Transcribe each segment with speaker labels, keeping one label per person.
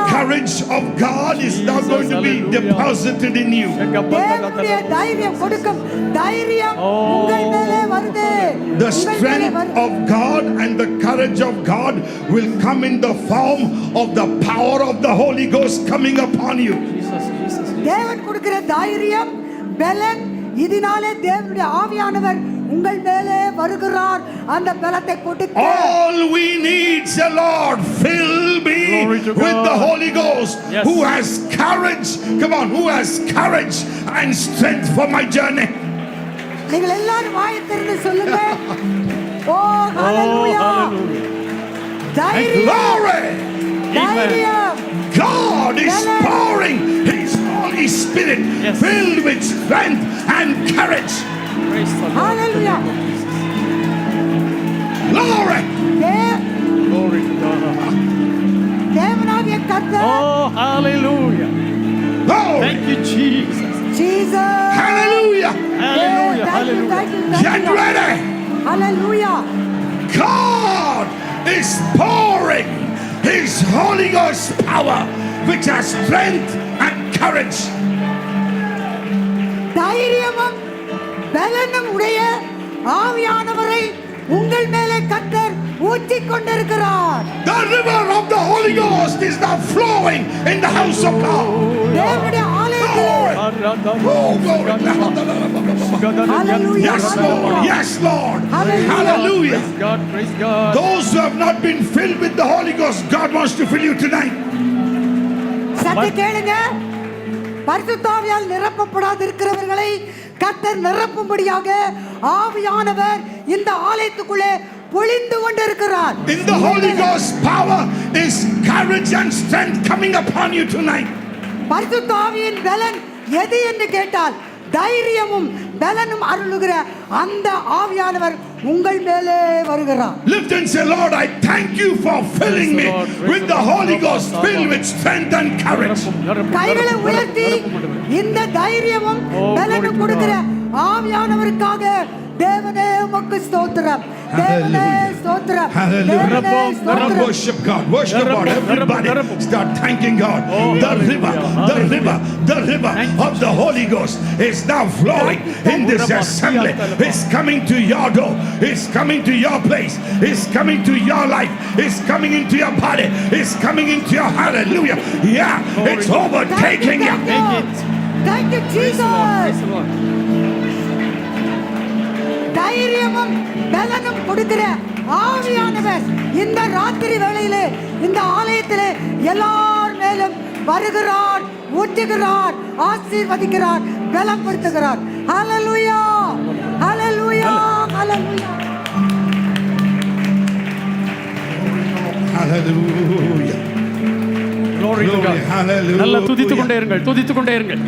Speaker 1: grace of God is now
Speaker 2: Jesus,
Speaker 1: going to be
Speaker 2: hallelujah.
Speaker 1: deposited in you.
Speaker 2: செக்கப்பட்டதகதகதக.
Speaker 3: தேவனுடைய தைரியம் கொடுக்கும் தைரியம்
Speaker 2: ஓ.
Speaker 3: உங்கள் மேலே வருது
Speaker 1: The
Speaker 3: உங்கள் மேலே
Speaker 1: strength
Speaker 3: வருது.
Speaker 1: of God and the courage of God will come in the form of the power of the Holy Ghost coming upon you.
Speaker 2: Jesus, Jesus, Jesus.
Speaker 3: தேவன் கொடுக்கிற தைரியம் பலன் இதனாலே தேவனுடைய ஆவியானவர் உங்கள் மேலே வருகிறார் அந்த பலத்தை கொடுக்க
Speaker 2: Oh.
Speaker 1: All we need, the Lord, fill me
Speaker 2: Glory
Speaker 1: with
Speaker 2: to
Speaker 1: the
Speaker 2: God.
Speaker 1: Holy Ghost
Speaker 2: Yes.
Speaker 1: who has courage. Come on, who has courage and strength for my journey.
Speaker 3: நீங்கள் எல்லாரும் வாயை திறந்து சொல்லுங்க ஓ
Speaker 2: Oh,
Speaker 3: ஹalleluja
Speaker 2: hallelujah.
Speaker 3: தைரியம்
Speaker 1: Glory!
Speaker 3: தைரியம்
Speaker 1: God is
Speaker 3: Amen.
Speaker 1: pouring His Holy Spirit
Speaker 2: Yes.
Speaker 1: filled with strength and courage.
Speaker 2: Praise the Lord.
Speaker 3: Hallelujah.
Speaker 2: The name of Jesus.
Speaker 1: Glory!
Speaker 3: தே-
Speaker 2: Glory to God.
Speaker 3: தேவனாகிய கர்த்தர்
Speaker 2: Oh, hallelujah.
Speaker 1: Glory!
Speaker 2: Thank you, Jesus.
Speaker 3: Jesus
Speaker 1: Hallelujah!
Speaker 2: Hallelujah, hallelujah.
Speaker 1: Get ready!
Speaker 3: Hallelujah
Speaker 1: God is pouring His Holy Ghost power, which has strength and courage.
Speaker 3: தைரியமும் பலனும் உடைய ஆவியானவரை உங்கள் மேலே கத்தர் ஊற்றிக் கொண்டிருக்கிறார்
Speaker 1: The river of the Holy Ghost is now flowing in the house of God.
Speaker 3: தேவனுடைய ஆலயத்தில்
Speaker 1: Glory! Oh, glory!
Speaker 3: Hallelujah.
Speaker 1: Yes, Lord. Yes, Lord. Hallelujah.
Speaker 2: Praise God, praise God.
Speaker 1: Those who have not been filled with the Holy Ghost, God wants to fill you tonight.
Speaker 3: சத்து கேளுங்க பரிசுத்தாவியால் நிரப்பப்படாது இருக்கிறவர்களை கத்தர் நிரப்பும்படியாக ஆவியானவர் இந்த ஆலயத்துக்குள்ளே பொழிந்து கொண்டிருக்கிறார்
Speaker 1: In the Holy Ghost, power is courage and strength coming upon you tonight.
Speaker 3: பரிசுத்த ஆவியின் பலன் எது என்று கேட்டால் தைரியமும் பலனும் அருளுகிற அந்த ஆவியானவர் உங்கள் மேலே வருகிறார்
Speaker 1: Lift and say, Lord, I thank you for filling me with the Holy Ghost, filled with strength and courage.
Speaker 2: நிரப்பும், நிரப்பும்,
Speaker 3: கைகளை
Speaker 2: நிரப்பும்,
Speaker 3: உயர்த்தி
Speaker 2: நிரப்பும், நிரப்பும்.
Speaker 3: இந்த தைரியமும்
Speaker 2: Oh, glory
Speaker 3: பலனும்
Speaker 2: to
Speaker 3: கொடுக்கிற ஆவியானவருக்காக தேவனே உமக்கு ஸ்தோத்திரம் தேவனே
Speaker 1: Hallelujah.
Speaker 3: ஸ்தோத்திரம்
Speaker 1: Hallelujah.
Speaker 3: தேவனே
Speaker 2: நிரப்பும்,
Speaker 1: Come
Speaker 3: ஸ்தோத்திரம்
Speaker 1: worship God, worship God, everybody. Start thanking God.
Speaker 2: Oh,
Speaker 1: the
Speaker 2: hallelujah,
Speaker 1: river, the
Speaker 2: hallelujah.
Speaker 1: river, the river
Speaker 2: Thank you,
Speaker 1: of the Holy Ghost is now flowing in this assembly. It's coming to your door, it's coming to your place, it's coming to your life, it's coming into your body, it's coming into your hallelujah. Yeah, it's
Speaker 3: Thank you,
Speaker 1: overtaking you.
Speaker 2: Take
Speaker 3: thank
Speaker 2: it.
Speaker 3: you. Thank you,
Speaker 2: Praise the Lord, praise
Speaker 3: Jesus.
Speaker 2: the Lord.
Speaker 3: தைரியமும் பலனும் கொடுக்கிற ஆவியானவர் இந்த ராத்திரி வேளையிலே இந்த ஆலயத்திலே எல்லார் மேலும் வருகிறார் ஊற்றுகிறார் ஆசீர்வதிக்கிறார் பலப்படுத்துகிறார் hallelujah hallelujah hallelujah
Speaker 1: Hallelujah.
Speaker 2: Glory to God.
Speaker 1: Glory, hallelujah.
Speaker 2: நல்லா துதித்துக் கொண்டே இருங்கள் துதித்துக் கொண்டே இருங்கள்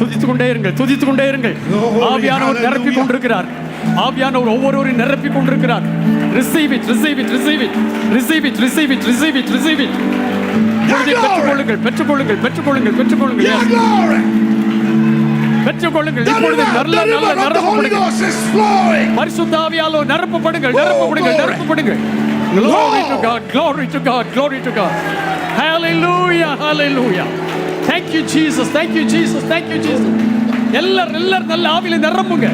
Speaker 2: துதித்துக் கொண்டே இருங்கள் துதித்துக் கொண்டே இருங்கள்
Speaker 1: Glory,
Speaker 2: ஆவியானவர் நிரப்பி
Speaker 1: hallelujah.
Speaker 2: கொண்டிருக்கிறார் ஆவியானவர் ஒவ்வொருவரையும் நிரப்பி கொண்டிருக்கிறார் receive it receive it receive it receive it receive it receive it receive it
Speaker 1: Your glory,
Speaker 2: பெற்றுக்கொள்ளுங்கள் பெற்றுக்கொள்ளுங்கள் பெற்றுக்கொள்ளுங்கள் பெற்றுக்கொள்ளுங்கள்
Speaker 1: your
Speaker 2: Yes.
Speaker 1: glory.
Speaker 2: பெற்றுக்கொள்ளுங்கள்
Speaker 1: The
Speaker 2: இப்பொழுது
Speaker 1: river,
Speaker 2: நல்ல
Speaker 1: the
Speaker 2: நல்ல
Speaker 1: river of the Holy
Speaker 2: நிரப்பப்படுங்கள்
Speaker 1: Ghost is flowing.
Speaker 2: பரிசுத்தாவியாலோ நிரப்பப்படுங்கள் நிரப்பப்படுங்கள்
Speaker 1: glory.
Speaker 2: நிரப்பப்படுங்கள் glory to
Speaker 1: Lord.
Speaker 2: god glory to god glory to god hallelujah hallelujah thank you jesus thank you jesus thank you jesus எல்லாரும் எல்லாரும் நல்ல ஆவியில நிரம்புங்க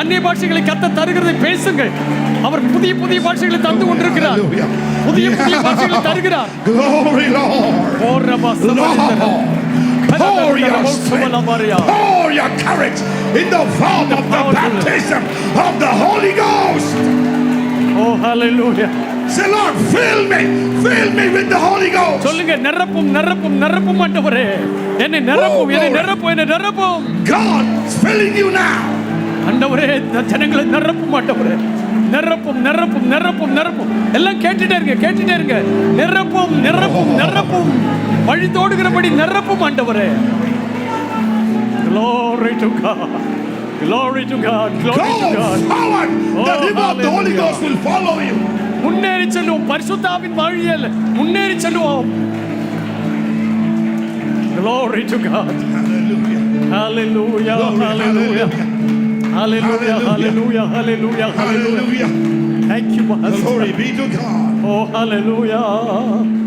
Speaker 2: அந்நிய பாஷைகளை கத்த தருகிறதை பேசுங்கள் அவர் புதிய புதிய பாஷைகளை தந்து கொண்டிருக்கிறார்
Speaker 1: Hallelujah.
Speaker 2: புதிய புதிய
Speaker 1: Yeah.
Speaker 2: பாஷைகளை தருகிறார்
Speaker 1: Glory, Lord.
Speaker 2: ஓரமா
Speaker 1: Lord,
Speaker 2: சமாளித்தனர்.
Speaker 1: pour your strength, pour your courage in the form of the baptism of the Holy Ghost.
Speaker 2: oh hallelujah
Speaker 1: Say, Lord, fill me, fill me with the Holy Ghost.
Speaker 2: சொல்லுங்க நிரப்பும் நிரப்பும் நிரப்பும் ஆண்டவரே என்னை நிரப்பும் என்னை
Speaker 1: glory.
Speaker 2: நிரப்பும் என்னை நிரப்பும்
Speaker 1: God is filling you now.
Speaker 2: ஆண்டவரே இந்த ஜனங்களை நிரப்பும் ஆண்டவரே நிரப்பும் நிரப்பும் நிரப்பும் நிரப்பும் எல்லாம் கேட்டுட்டே இருங்க கேட்டுட்டே இருங்க நிரப்பும் நிரப்பும் நிரப்பும் வழி தோடுகிறபடி நிரப்பும் ஆண்டவரே glory to god glory to god
Speaker 1: Go
Speaker 2: glory to god
Speaker 1: forward. The
Speaker 2: Oh,
Speaker 1: river of the Holy
Speaker 2: hallelujah.
Speaker 1: Ghost will follow you.
Speaker 2: முன்னேறி செல்லுவோம் பரிசுத்தாவின் வழியில் முன்னேறி செல்லுவோம் glory to god
Speaker 1: Hallelujah.
Speaker 2: Hallelujah,
Speaker 1: Glory,
Speaker 2: hallelujah. Hallelujah,
Speaker 1: Hallelujah.
Speaker 2: hallelujah, hallelujah, hallelujah.
Speaker 1: Hallelujah.
Speaker 2: Thank you, Master.
Speaker 1: Glory be to God.
Speaker 2: Oh, hallelujah.